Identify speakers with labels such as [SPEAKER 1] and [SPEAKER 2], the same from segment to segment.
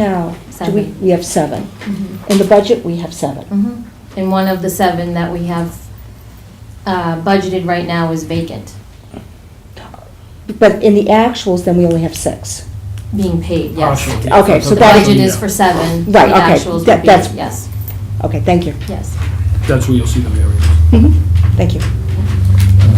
[SPEAKER 1] Now, do we,
[SPEAKER 2] Seven.
[SPEAKER 1] we have seven.
[SPEAKER 2] Mhm.
[SPEAKER 1] In the budget, we have seven.
[SPEAKER 2] Mhm. And one of the seven that we have uh, budgeted right now is vacant,
[SPEAKER 1] But in the actuals, then we only have six.
[SPEAKER 2] being paid, yes.
[SPEAKER 3] Partial.
[SPEAKER 1] Okay, so
[SPEAKER 2] The
[SPEAKER 1] that-
[SPEAKER 2] budget is for seven.
[SPEAKER 1] Right,
[SPEAKER 2] The
[SPEAKER 1] okay.
[SPEAKER 2] actuals
[SPEAKER 1] That-
[SPEAKER 2] would be,
[SPEAKER 1] that's-
[SPEAKER 2] yes,
[SPEAKER 1] Okay, thank you.
[SPEAKER 2] yes.
[SPEAKER 3] That's where you'll see the variance.
[SPEAKER 1] Mhm. Thank you.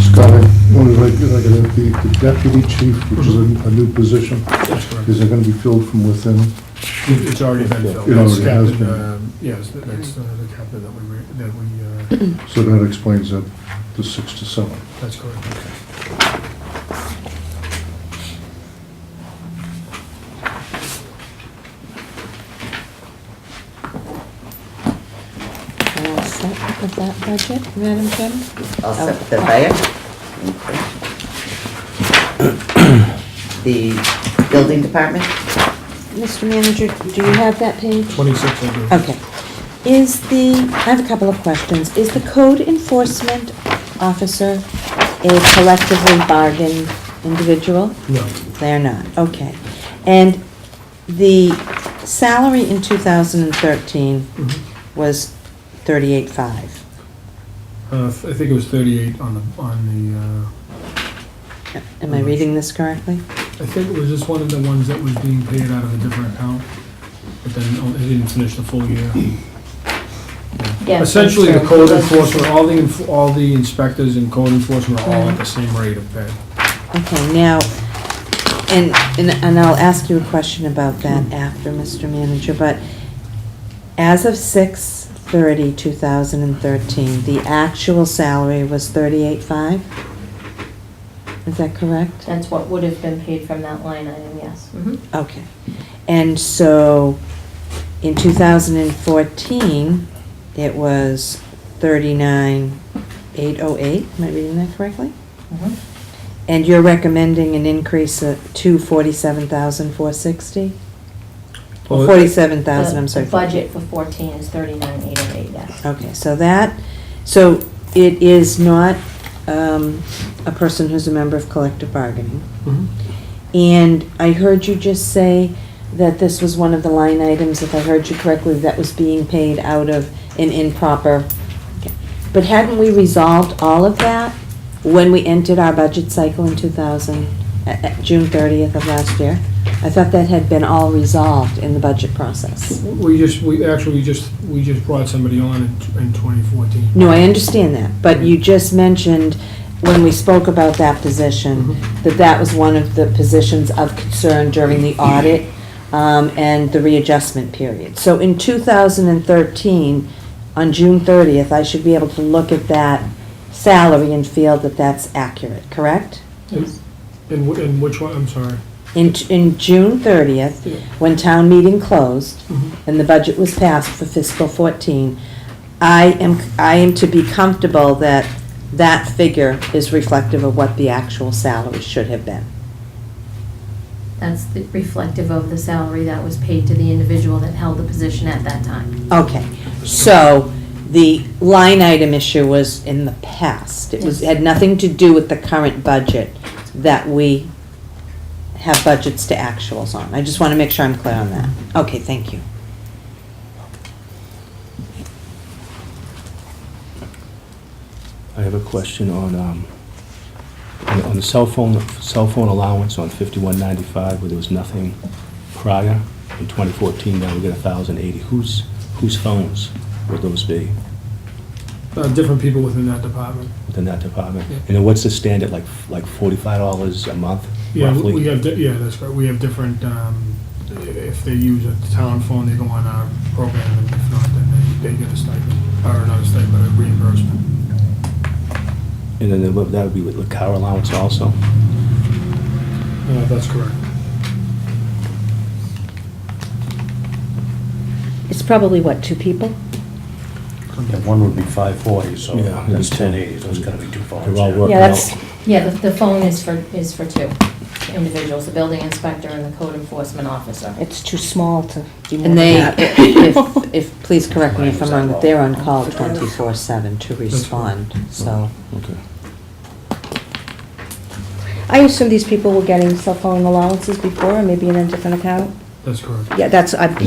[SPEAKER 4] Scott, I wonder if I could- I could, have uh, the the deputy chief, which is a a new position,
[SPEAKER 3] That's correct.
[SPEAKER 4] is it going to be filled from within?
[SPEAKER 3] It- It's already been filled.
[SPEAKER 4] It
[SPEAKER 3] That's
[SPEAKER 4] already has
[SPEAKER 3] captain,
[SPEAKER 4] been.
[SPEAKER 3] um, Yes, that- that's uh, the captain that we, re- that we, uh,
[SPEAKER 4] So that explains that, the six to seven.
[SPEAKER 3] that's correct.
[SPEAKER 1] We're all set with that budget, Madam Chairman?
[SPEAKER 5] I'll set that back. The building department,
[SPEAKER 1] Mr. Manager, do you have that page?
[SPEAKER 3] Twenty-six, I do.
[SPEAKER 1] Okay. Is the, I have a couple of questions. Is the code enforcement officer a collectively bargained individual?
[SPEAKER 3] No,
[SPEAKER 1] They're not, okay. And the salary in 2013
[SPEAKER 3] Mhm.
[SPEAKER 1] was 38.5.
[SPEAKER 3] Uh, I think it was thirty-eight on the, on the, uh,
[SPEAKER 1] Am I reading this correctly?
[SPEAKER 3] I think it was just one of the ones that was being paid out of a different account, but then oh, it didn't finish the full year.
[SPEAKER 2] Yeah,
[SPEAKER 3] Essentially, the
[SPEAKER 2] that's
[SPEAKER 3] code
[SPEAKER 2] true.
[SPEAKER 3] enforcement, all the, enf- all the inspectors and code enforcement are all at the same rate of pay.
[SPEAKER 1] Okay, now, and, and and I'll ask you a question about that after, Mr. Manager, but as of 6/30, 2013, the actual salary was 38.5? Is that correct?
[SPEAKER 2] That's what would have been paid from that line item, yes. Mhm.
[SPEAKER 1] Okay. And so, in 2014, it was 39,808, am I reading that correctly?
[SPEAKER 2] Mhm.
[SPEAKER 1] And you're recommending an increase of- to 47,460? Or
[SPEAKER 3] Well,
[SPEAKER 1] 47,000, I'm
[SPEAKER 2] The-
[SPEAKER 1] sorry.
[SPEAKER 2] The budget for 14 is 39,808, yes.
[SPEAKER 1] Okay, so that, so it is not um, a person who's a member of collective bargaining.
[SPEAKER 3] Mhm.
[SPEAKER 1] And I heard you just say that this was one of the line items, if I heard you correctly, that was being paid out of an improper. But hadn't we resolved all of that when we entered our budget cycle in 2000, uh, uh, June 30th of last year? I thought that had been all resolved in the budget process.
[SPEAKER 3] We just, we, actually, we just, we just brought somebody on in t- in 2014.
[SPEAKER 1] No, I understand that, but you just mentioned when we spoke about that position, that that was one of the positions of concern during the audit um, and the readjustment period. So in 2013, on June 30th, I should be able to look at that salary and feel that that's accurate, correct?
[SPEAKER 3] Yes. And, wh- and which one, I'm sorry.
[SPEAKER 1] In, in June 30th, when town meeting closed,
[SPEAKER 3] Mhm.
[SPEAKER 1] and the budget was passed for fiscal 14, I am, I am to be comfortable that that figure is reflective of what the actual salary should have been.
[SPEAKER 2] That's the- reflective of the salary that was paid to the individual that held the position at that time.
[SPEAKER 1] Okay, so the line item issue was in the past. It was,
[SPEAKER 2] Yes.
[SPEAKER 1] had nothing to do with the current budget that we have budgets to actuals on. I just want to make sure I'm clear on that. Okay, thank you.
[SPEAKER 6] I have a question on, um, on on the cell phone, cell phone allowance on fifty-one ninety-five, where there was nothing prior. In twenty fourteen, now we get a thousand eighty. Whose, whose phones would those be
[SPEAKER 3] Uh, Different people within that department.
[SPEAKER 6] within that department?
[SPEAKER 3] Yeah.
[SPEAKER 6] And then what's the standard, like, like forty-five dollars a month
[SPEAKER 3] Yeah, we- we
[SPEAKER 6] roughly?
[SPEAKER 3] have, di- yeah, that's right, we have different, um, if they use a town phone, they go on our program, and if not, then they, they get a stipend, or not a stipend, but a reimbursement.
[SPEAKER 6] And then what- that would be with the car allowance also?
[SPEAKER 3] Uh, That's correct.
[SPEAKER 1] It's probably, what, two people?
[SPEAKER 7] Yeah, one would be 540, so
[SPEAKER 6] Yeah, it'd be
[SPEAKER 7] that's
[SPEAKER 6] two.
[SPEAKER 7] 1080, so it's gonna be two phones.
[SPEAKER 6] They're all
[SPEAKER 7] yeah.
[SPEAKER 6] working
[SPEAKER 1] Yeah, that's-
[SPEAKER 6] out.
[SPEAKER 2] Yeah, the, the phone is for, is for two individuals, the building inspector and the code enforcement officer.
[SPEAKER 1] It's too small to do more
[SPEAKER 8] And they,
[SPEAKER 1] than that.
[SPEAKER 8] if, if, please correct me if I'm wrong, but they're on
[SPEAKER 1] call 24/7 to respond, so.
[SPEAKER 6] Okay.
[SPEAKER 9] I assume these people were getting cell phone allowances before, and maybe in a different account?
[SPEAKER 10] That's correct.
[SPEAKER 1] Yeah, that's, I,